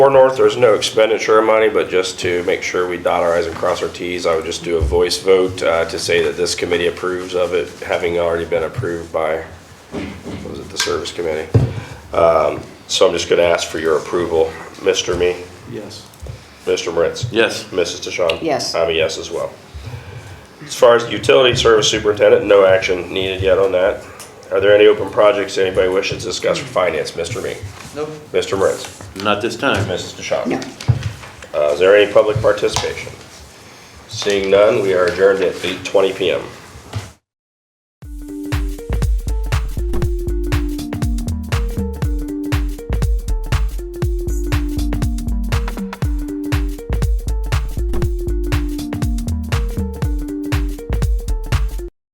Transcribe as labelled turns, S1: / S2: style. S1: For North, there's no expenditure of money, but just to make sure we dot our i's and cross our t's, I would just do a voice vote uh, to say that this committee approves of it, having already been approved by, what was it, the service committee? Um, So I'm just going to ask for your approval. Mr. Me,
S2: Yes.
S1: Mr. Moritz?
S2: Yes.
S1: Mrs. DeShawn?
S3: Yes.
S1: I'm a yes as well. As far as the utility service superintendent, no action needed yet on that. Are there any open projects anybody wishes to discuss for finance? Mr. Me?
S2: Nope.
S1: Mr. Moritz?
S2: Not this time.
S1: Mrs. DeShawn?
S3: No.
S1: Uh, Is there any public participation? Seeing none, we are adjourned at 8:20 PM.